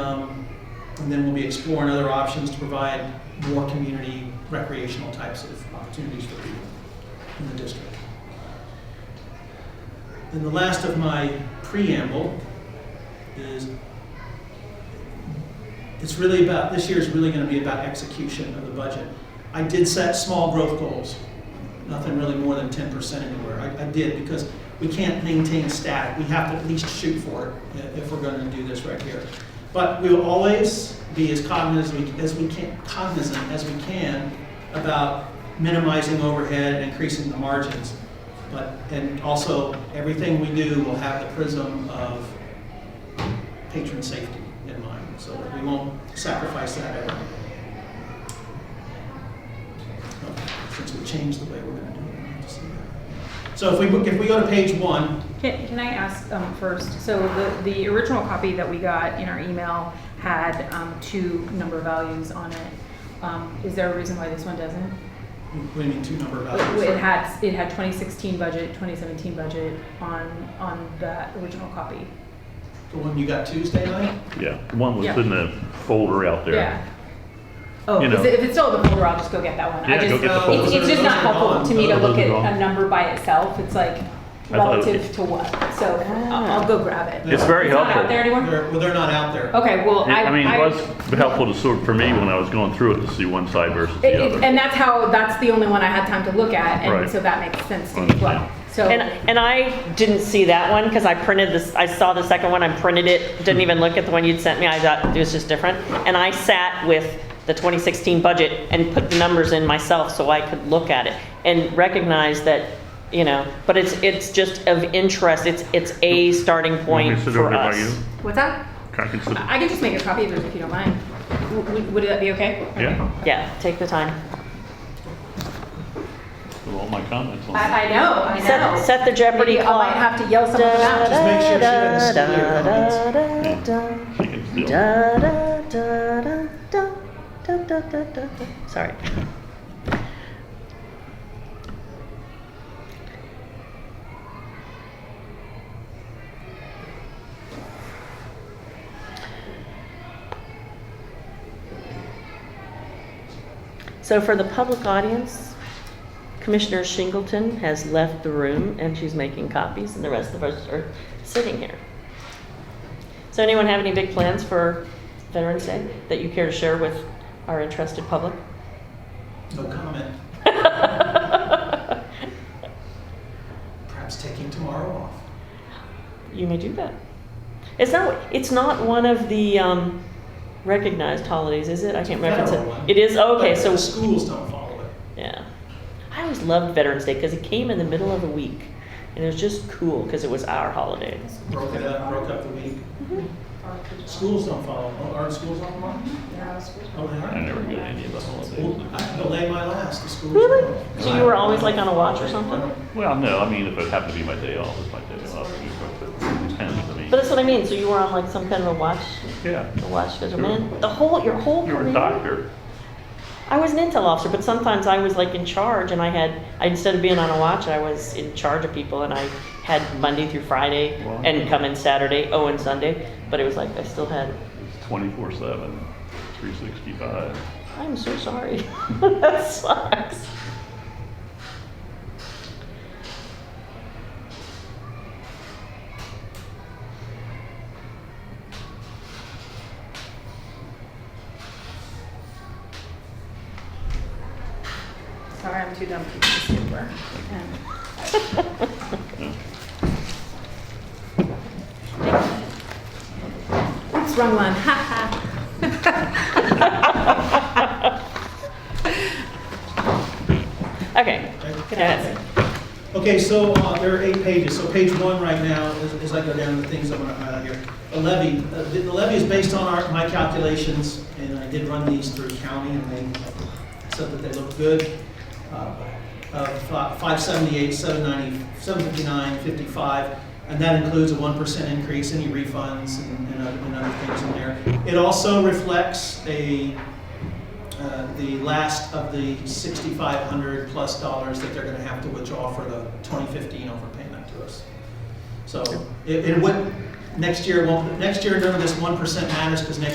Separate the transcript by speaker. Speaker 1: Um, And then we'll be exploring other options to provide more community recreational types of opportunities for people in the district. And the last of my preamble is, it's really about, this year is really going to be about execution of the budget. I did set small growth goals, nothing really more than 10% anywhere. I I did because we can't maintain static. We have to at least shoot for it i- if we're going to do this right here. But we will always be as cognizant as we can, cognizant as we can about minimizing overhead and increasing the margins. But, and also, everything we do will have the prism of patron safety in mind, so we won't sacrifice that ever. Since we changed the way we're gonna do it. I have to see that. So if we, if we go to page one,
Speaker 2: Can, can I ask um, first? So the, the original copy that we got in our email had um, two number values on it. Um, is there a reason why this one doesn't?
Speaker 1: we need two number
Speaker 3: Uh,
Speaker 2: It, it
Speaker 1: values.
Speaker 2: had it had 2016 budget, 2017 budget on on that original copy.
Speaker 1: The one you got Tuesday night?
Speaker 3: Yeah, one was
Speaker 2: Yeah.
Speaker 3: in the folder out there.
Speaker 2: Yeah. Oh,
Speaker 3: You
Speaker 2: is
Speaker 3: know.
Speaker 2: it, if it's still in the folder, I'll just go get that one. I
Speaker 3: Yeah,
Speaker 2: just,
Speaker 3: go
Speaker 1: Uh,
Speaker 3: get the folder.
Speaker 2: It's, it's just not helpful to me to
Speaker 3: Those
Speaker 2: look
Speaker 3: are
Speaker 2: at
Speaker 3: gone.
Speaker 2: a number by itself. It's like
Speaker 3: I thought it-
Speaker 2: relative to what. So I'll, I'll go grab it.
Speaker 3: It's very
Speaker 2: It's not out
Speaker 3: helpful.
Speaker 2: there
Speaker 3: It-
Speaker 2: anymore.
Speaker 1: They're, well, they're not out there.
Speaker 2: Okay. Well, I,
Speaker 3: I mean, it was helpful to sort, for me, when I was going through it, to see one side versus
Speaker 2: It-
Speaker 3: the
Speaker 2: it-
Speaker 3: other.
Speaker 2: And that's how, that's the only one I had time to look at, and
Speaker 3: Right.
Speaker 2: so that makes sense to me as well. So,
Speaker 4: And, and I didn't see that one because I printed this, I saw the second one, I printed it, didn't even look at the one you'd sent me, I thought it was just different. And I sat with the 2016 budget and put the numbers in myself so I could look at it and recognize that, you know, but it's, it's just of interest, it's, it's a starting
Speaker 3: Want me
Speaker 4: point
Speaker 3: to sit over
Speaker 4: for
Speaker 3: there by
Speaker 4: us.
Speaker 3: you?
Speaker 2: what's that?
Speaker 3: Can I can sit-
Speaker 2: I I can just make a copy of it if you don't mind. W- w- Would that be okay?
Speaker 3: Yeah,
Speaker 4: Yeah, take the time.
Speaker 3: with all my comments on it.
Speaker 2: I, I know, I
Speaker 4: Set,
Speaker 2: know.
Speaker 4: set the Jeopardy
Speaker 2: Maybe I
Speaker 4: clock.
Speaker 2: might have to yell something out.
Speaker 1: Just make sure she doesn't steal your
Speaker 4: Da, da,
Speaker 1: comments.
Speaker 4: da, da, da.
Speaker 3: She can still-
Speaker 4: Da, da, da, da, da, da, da, da, da, da. Sorry. So for the public audience, Commissioner Shingleton has left the room and she's making copies and the rest of us are sitting here. Does anyone have any big plans for Veterans Day that you care to share with our interested public?
Speaker 1: No comment. Perhaps taking tomorrow off.
Speaker 4: You may do that. It's not, it's not one of the um, recognized holidays, is it? I can't remember. if it's a-
Speaker 1: Federal one.
Speaker 4: It is, okay,
Speaker 1: But
Speaker 4: so,
Speaker 1: The schools don't follow it.
Speaker 4: yeah. I always loved Veterans Day because it came in the middle of the week. And it was just cool because it was our holiday.
Speaker 1: Broke it up, broke up the week.
Speaker 2: Mm-hmm.
Speaker 1: Schools don't follow, Oh, aren't schools online? Oh, they
Speaker 3: I
Speaker 1: are?
Speaker 3: never got any of the
Speaker 1: Well,
Speaker 3: holidays.
Speaker 1: I delay my last, the schools.
Speaker 4: Really?
Speaker 1: don't.
Speaker 4: So you were always, like, on a watch or something?
Speaker 3: Well, no, I mean, if it happened to be my day off, it's my day off. you know, but It depends, I
Speaker 4: But
Speaker 3: mean,
Speaker 4: that's what I mean, so you were on like some kind of a watch,
Speaker 3: yeah.
Speaker 4: a watch schedule, man. The whole, your whole
Speaker 3: You were a
Speaker 4: career.
Speaker 3: doctor.
Speaker 4: I was an intel officer, but sometimes I was like in charge, and I had I, instead of being on a watch, I was in charge of people, and I had Monday through Friday,
Speaker 3: Wow.
Speaker 4: and come in Saturday, oh, and Sunday. But it was like I still had.
Speaker 3: It's twenty-four seven, three sixty-five.
Speaker 4: I'm so sorry. that sucks.
Speaker 2: Sorry, I'm too dumb to be super. Oops, wrong one, ha
Speaker 4: Okay.
Speaker 1: Okay.
Speaker 4: Yes.
Speaker 1: Okay, so uh, there are eight pages, so page one right now, as- as I go down the things I'm gonna highlight here. The levy, uh, the the levy is based on our, my calculations, and I did run these through county, and they said that they look good. Uh, uh, Five seventy-eight, seven ninety, seven fifty-nine, fifty-five, and that includes a one percent increase, any refunds and and other and other things in there. It also reflects a uh, the last of the sixty-five hundred plus dollars that they're gonna have to withdraw for the twenty fifteen overpayment to us. So it, it would, Next year, it won't, next year, none of this one percent matters, because next